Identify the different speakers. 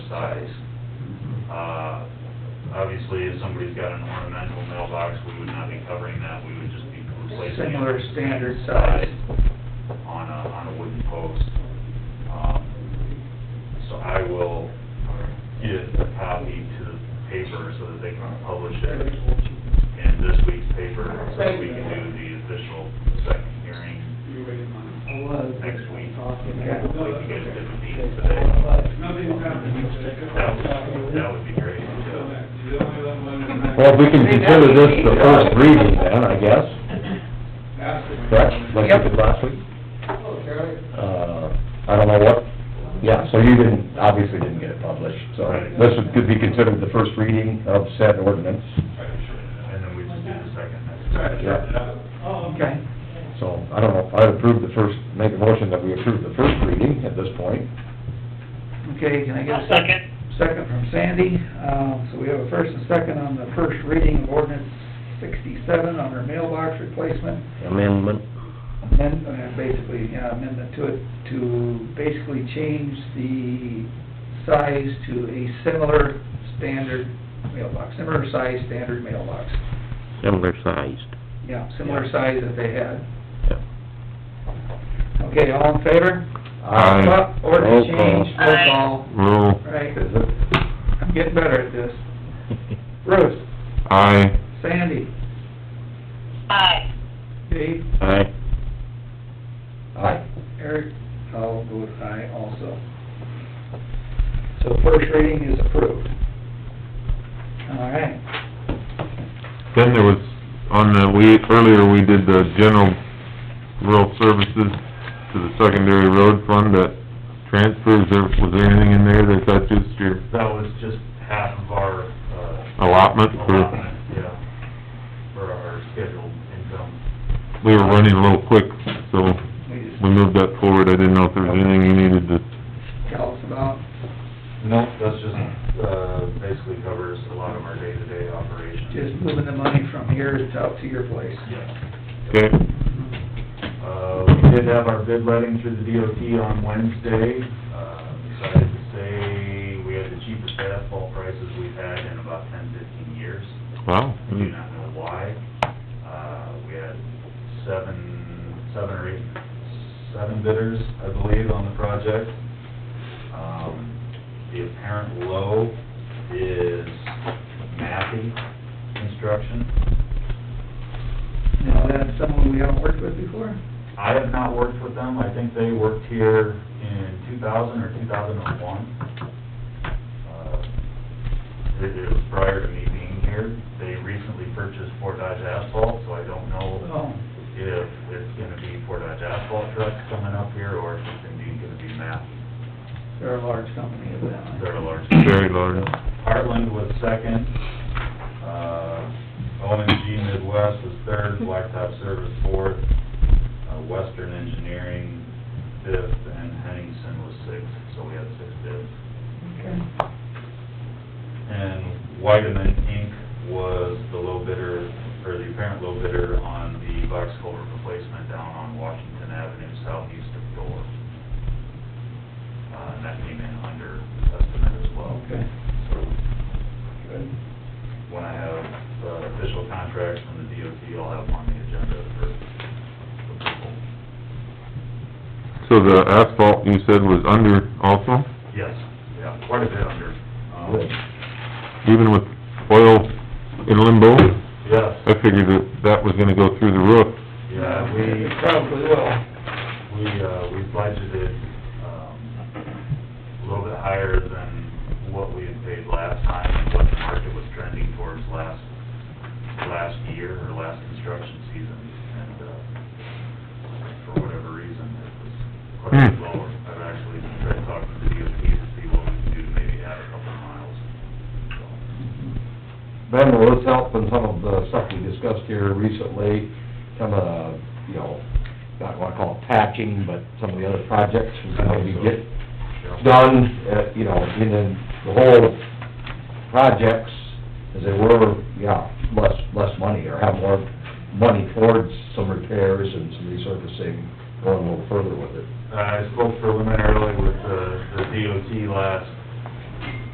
Speaker 1: size. Uh, Obviously, if somebody's got an ornamental mailbox, we would not be covering that, we would just be replacing. it.
Speaker 2: Similar standard size.
Speaker 1: On a, on a wooden post. Um, So I will get a copy to the paper so that they can publish it in this week's paper, so that we can do the official second hearing next week. We can get a different meeting today. That would, that would be great, yeah.
Speaker 3: Well, if we can consider this the first reading then, I guess, correct, like we did last week? Uh, I don't know what, yeah, so you didn't, obviously didn't get it published, so
Speaker 1: Right.
Speaker 3: this would- could be considered the first reading of said ordinance,
Speaker 1: And then we just do the second next time.
Speaker 2: Okay.
Speaker 3: so, I don't know, I approve the first, make a motion that we approve the first reading at this point.
Speaker 2: Okay, can I get a
Speaker 4: I'll
Speaker 2: second?
Speaker 4: second.
Speaker 2: Second from Sandy. Um, so we have a first and second on the first reading of ordinance sixty-seven on our mailbox replacement.
Speaker 3: Amendment.
Speaker 2: Amend, uh, basically, yeah, amendment to it, to basically change the size to a similar standard mailbox, similar size standard mailbox.
Speaker 5: similar sized.
Speaker 2: Yeah, similar size that they had.
Speaker 5: Yep.
Speaker 2: Okay, all in favor?
Speaker 3: Aye.
Speaker 2: Uh, Ordinance
Speaker 5: Roll call.
Speaker 2: change, roll call.
Speaker 5: Rule.
Speaker 2: Right,
Speaker 3: Is it?
Speaker 2: I'm getting better at this. Bruce,
Speaker 5: Aye.
Speaker 2: Sandy,
Speaker 4: Aye.
Speaker 2: Dave,
Speaker 5: Aye.
Speaker 3: Aye.
Speaker 2: Eric, I'll vote aye also. So first reading is approved. All right,
Speaker 6: Then there was, on the, we, earlier we did the general rural services to the secondary road fund, that transfers, there, was there anything in there that that's just your
Speaker 1: That was just half of our, uh,
Speaker 6: allotment for,
Speaker 1: allotment, yeah, for our scheduled income.
Speaker 6: we were running a little quick, so
Speaker 2: we just
Speaker 6: we moved that forward, I didn't know if there was anything you needed to,
Speaker 2: tell us about,
Speaker 1: No, that's just, uh, basically covers a lot of our day-to-day operations.
Speaker 2: just moving the money from here to out to your place.
Speaker 1: Yeah.
Speaker 6: okay?
Speaker 1: Uh, we did have our bid letting through the DOT on Wednesday. Uh, Excited to say, we had the cheapest asphalt prices we've had in about ten, fifteen years.
Speaker 6: Wow.
Speaker 1: I do not know why. Uh, we had seven, seven or eight, seven bidders, I believe, on the project. Um, the apparent low is Maffey Construction.
Speaker 2: Now, that's someone we haven't worked with before?
Speaker 1: I have not worked with them, I think they worked here in two thousand or two thousand and one. Uh, It it was prior to me being here, they recently purchased Fort Dodge Asphalt, so I don't know
Speaker 2: Oh,
Speaker 1: if it's gonna be Fort Dodge Asphalt trucks coming up here, or if it's indeed gonna be Matt.
Speaker 2: they're a large company, evidently.
Speaker 1: They're a large.
Speaker 6: Very large.
Speaker 1: Heartland was second, uh, OMG Midwest was third, Blacktop Service fourth, uh, Western Engineering fifth, and Henningsen was sixth, so we had six bids.
Speaker 2: Okay.
Speaker 1: And Whiteman Inc. was the low bidder, or the apparent low bidder on the box culvert replacement down on Washington Avenue southeast of Door. Uh, and that came in under estimate as well.
Speaker 2: Okay. Good.
Speaker 1: When I have uh, official contracts from the DOT, I'll have them on the agenda for approval.
Speaker 6: So the asphalt you said was under also,
Speaker 1: Yes, yeah, quite a bit under. Um,
Speaker 6: even with oil in limbo?
Speaker 1: Yes,
Speaker 6: I figured that that was gonna go through the roof.
Speaker 1: yeah, we...
Speaker 2: It Probably will.
Speaker 1: We, uh, we budgeted, um, a little bit higher than what we had paid last time, and what the market was trending towards last, last year, or last construction season, and, uh, for whatever reason, it was quite a bit
Speaker 6: Hmm.
Speaker 1: lower. I've actually tried to talk to the DOT to see what we can do to maybe add a couple miles, so.
Speaker 3: Ben, will this help in some of the stuff we discussed here recently, some of, you know, not wanna call it patching, but some of the other projects we can maybe get done, uh, you know, in the- the whole projects, as they were, yeah, less, less money, or have more money towards some repairs and some resurfacing,
Speaker 1: Uh,
Speaker 3: going a little further with it.
Speaker 1: I spoke preliminarily with the, the DOT last